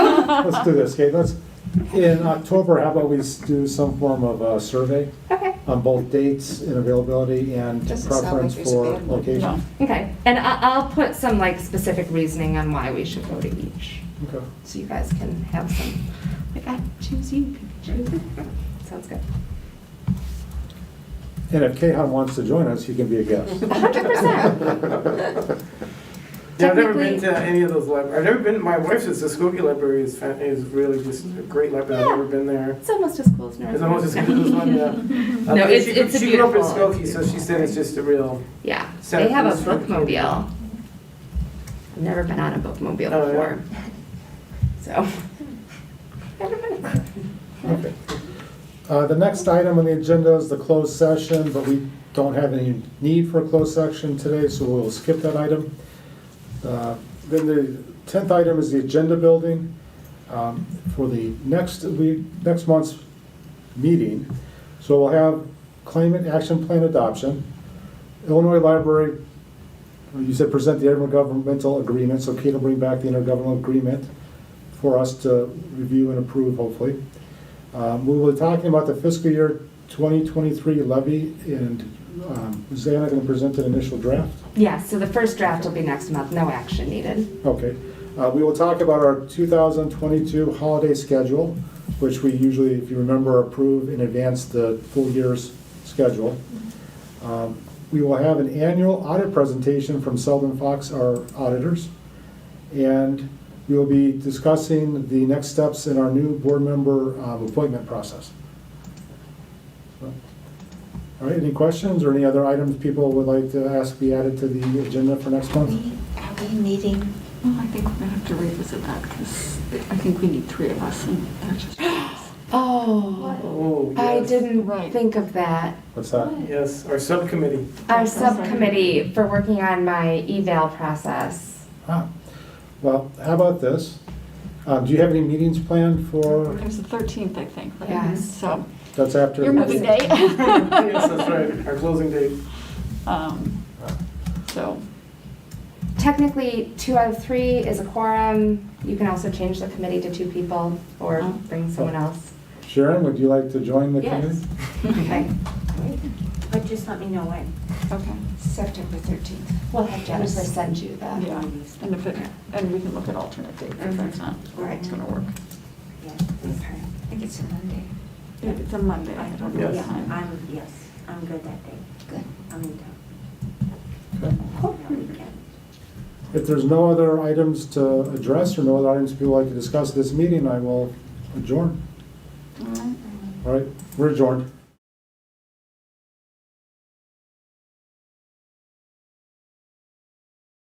Let's do this, okay, let's, in October, how about we s- do some form of a survey Okay. on both dates and availability and Doesn't sound like preference there's a for bad one. location? Okay, and I, I'll put some like specific reasoning on why we should go to each, Okay. so you guys can have some, like, I choose you, you choose me. Sounds good. And if Kahan wants to join us, he can be a guest. hundred percent. Yeah, I've never Technically- been to any of those libraries. I've never been, my wife's at Muskogee Library is, fan- is really just a great library. I've Yeah. never been there. It's almost as cool as North. It's almost as good as one, yeah. Uh, No, but it's- she- it's a She grew up in beautiful- Skokie, so she said it's just a real, Yeah, Set they up have a this for- bookmobile. I've never been on a bookmobile Oh, yeah. before, so. Never been. Okay. Uh, The next item on the agenda is the closed session, but we don't have any need for a closed session today, so we'll skip that item. Uh, Then the tenth item is the agenda building. um, For the next week, next month's meeting, so we'll have climate action plan adoption. Illinois Library, you said present the intergovernmental agreement, so Kate will bring back the intergovernmental agreement for us to review and approve, hopefully. Um, We were talking about the fiscal year 2023 levy, and um, is Anna going to present an initial draft? Yeah, so the first draft will be next month, no action needed. Okay. Uh, We will talk about our 2022 holiday schedule, which we usually, if you remember, approve in advance the full year's schedule. Um, We will have an annual audit presentation from Selden Fox, our auditors. And we will be discussing the next steps in our new board member um, appointment process. So, All right, any questions or any other items people would like to ask be added to the agenda for next Are month? we are we meeting? Well, I think we're gonna have to revisit that because I think we need three of us and that's just. Oh, oh, I yes. didn't Right. think of that. What's that? Yes, our subcommittee. Our That's awesome. subcommittee for working on my eval process. Ah, Well, how about this? Um, Do you have any meetings planned for, There's the thirteenth, I think, right? Yes. So, that's after? your moving day. Yes, that's right, our closing date. Um, Uh, So, Technically, two out of three is a quorum. You can also change the committee to two people or Oh. bring someone else. Sharon, would you like to join the Yes. committee? Okay. But just let me know when. okay, September 13th. We'll have Jennifer send you the. yeah, and if it, and we can look at alternate dates if that's not, Right. it's gonna work. Yeah, okay. I think it's a Monday. It's a Monday, I don't know the Yes. Yeah, time. I'm, yes, I'm good that day. Good. I'm in town. Okay. Cool. Weekend. If there's no other items to address or no other items people like to discuss at this meeting, I will adjourn. All right. All right, we're adjourned.